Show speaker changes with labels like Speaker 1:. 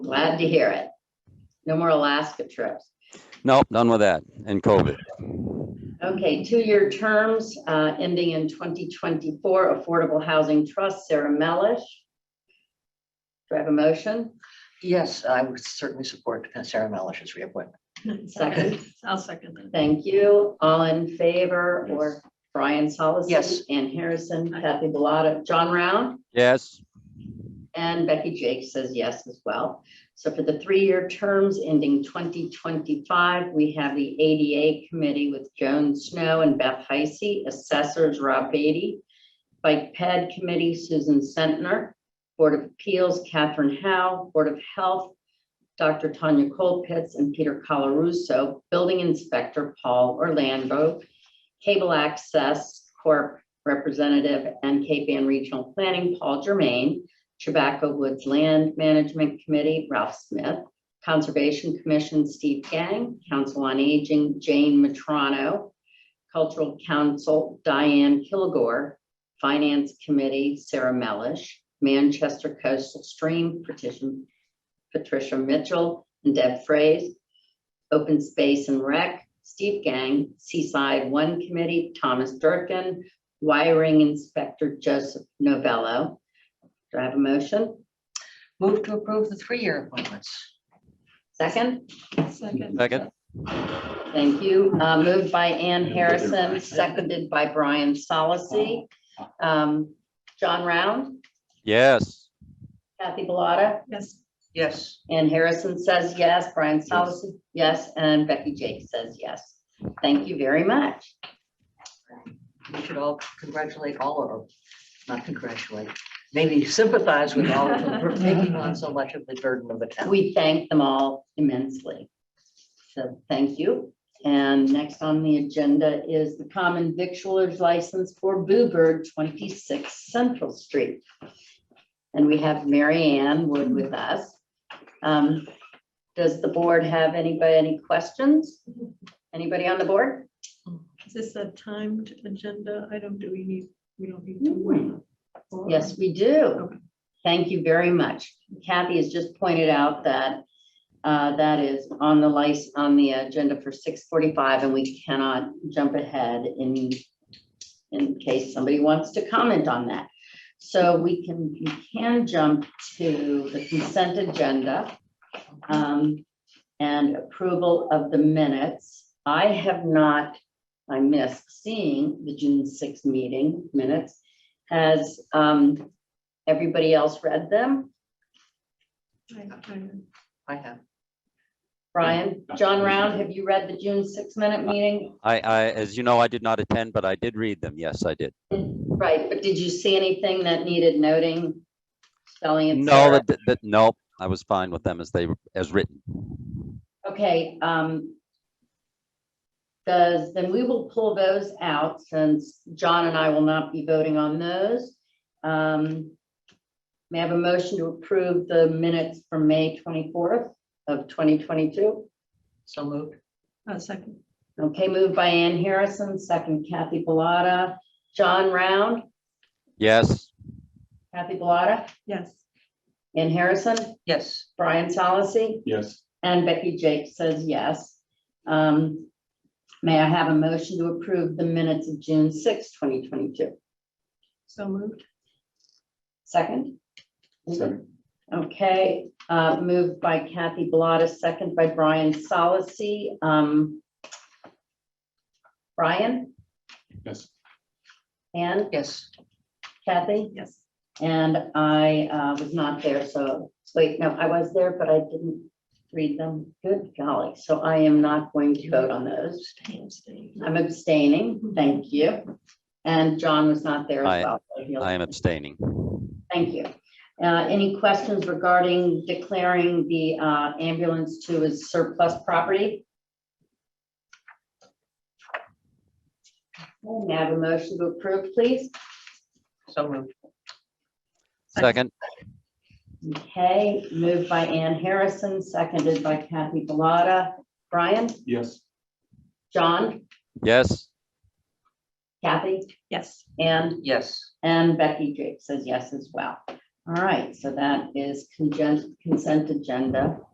Speaker 1: Glad to hear it. No more Alaska trips.
Speaker 2: Nope, done with that and COVID.
Speaker 1: Okay, two-year terms uh, ending in 2024, Affordable Housing Trust, Sarah Melish. Do I have a motion?
Speaker 3: Yes, I would certainly support Sarah Mellish's reappointment.
Speaker 1: Second,
Speaker 4: I'll second that.
Speaker 1: thank you. All in favor, or Brian Solis?
Speaker 3: Yes.
Speaker 1: Ann Harrison, Kathy Bellata, John Round?
Speaker 2: Yes,
Speaker 1: And Becky Jake says yes as well. So for the three-year terms ending 2025, we have the ADA Committee with Joan Snow and Beth Heisey, Assessors Rob Beatty, Bike Ped Committee Susan Sentner, Board of Appeals Catherine Howe, Board of Health Dr. Tanya Colpitz and Peter Colarusso, Building Inspector Paul Orlando, Cable Access Corp. Representative and Cape Ann Regional Planning Paul Germain, Tobacco Woods Land Management Committee, Ralph Smith, Conservation Commission, Steve Gang, Council on Aging, Jane Matrono, Cultural Council, Diane Kilgore, Finance Committee, Sarah Melish, Manchester Coastal Stream Petition, Patricia Mitchell and Deb Fraze, Open Space and Rec, Steve Gang, Seaside One Committee, Thomas Durkin, Wiring Inspector Joseph Novello, do I have a motion?
Speaker 3: Move to approve the three-year appointments.
Speaker 1: Second,
Speaker 4: Second.
Speaker 2: second,
Speaker 1: thank you. Uh, Moved by Ann Harrison, seconded by Brian Solacey. Um, John Round,
Speaker 2: yes,
Speaker 1: Kathy Bellata,
Speaker 4: Yes.
Speaker 3: Yes,
Speaker 1: Ann Harrison says yes, Brian Solacey, yes, and Becky Jake says yes. Thank you very much.
Speaker 3: we should all congratulate all of them, not congratulate, maybe sympathize with all of them for taking on so much of the burden of the town.
Speaker 1: We thank them all immensely. So thank you. And next on the agenda is the common victualer's license for Boo Bird, 26 Central Street. And we have Mary Ann Wood with us. Um, Does the board have anybody, any questions? Anybody on the board?
Speaker 4: Is this a timed agenda item? Do we need, we don't need to
Speaker 1: Mm-hmm.
Speaker 4: wait? for-
Speaker 1: Yes, we do. Thank you very much. Kathy has just pointed out that uh, that is on the license, on the agenda for six forty-five, and we cannot jump ahead in in case somebody wants to comment on that. So we can, we can jump to the consent agenda um, and approval of the minutes. I have not, I missed seeing the June sixth meeting minutes. Has um, everybody else read them?
Speaker 4: I- I-
Speaker 3: I have.
Speaker 1: Brian, John Round, have you read the June six minute meeting?
Speaker 2: I, I, as you know, I did not attend, but I did read them. Yes, I did.
Speaker 1: Right, but did you see anything that needed noting? Spelling and.
Speaker 2: No, that, that, nope, I was fine with them as they, were- as written.
Speaker 1: Okay, um. Does, then we will pull those out since John and I will not be voting on those. Um. May I have a motion to approve the minutes from May twenty-fourth of twenty twenty-two?
Speaker 3: So moved.
Speaker 4: uh, Second.
Speaker 1: Okay, moved by Ann Harrison, second Kathy Bellata, John Round,
Speaker 2: Yes,
Speaker 1: Kathy Bellata,
Speaker 4: Yes.
Speaker 1: Ann Harrison,
Speaker 3: Yes,
Speaker 1: Brian Solacey,
Speaker 5: Yes,
Speaker 1: and Becky Jake says yes. Um, May I have a motion to approve the minutes of June 6, 2022?
Speaker 4: So moved.
Speaker 1: Second?
Speaker 5: Second.
Speaker 1: Okay, uh, moved by Kathy Bellata, second by Brian Solacey. Um, Brian,
Speaker 5: yes,
Speaker 1: Ann,
Speaker 3: yes,
Speaker 1: Kathy?
Speaker 4: Yes.
Speaker 1: And I uh, was not there, so, wait, no, I was there, but I didn't read them. Good golly, so I am not going to vote on those.
Speaker 4: Staying, staying.
Speaker 1: I'm abstaining, thank you. And John was not there
Speaker 2: I-
Speaker 1: as well. so he'll-
Speaker 2: I am abstaining.
Speaker 1: Thank you. Uh, Any questions regarding declaring the uh, ambulance to his surplus property? Okay, May I have a motion to approve, please?
Speaker 3: so moved.
Speaker 2: Second,
Speaker 1: Okay, moved by Ann Harrison, seconded by Kathy Bellata. Brian,
Speaker 5: yes,
Speaker 1: John,
Speaker 2: yes,
Speaker 1: Kathy,
Speaker 4: Yes.
Speaker 1: Ann,
Speaker 3: Yes,
Speaker 1: and Becky Jake says yes as well. All right, so that is congen- consent agenda.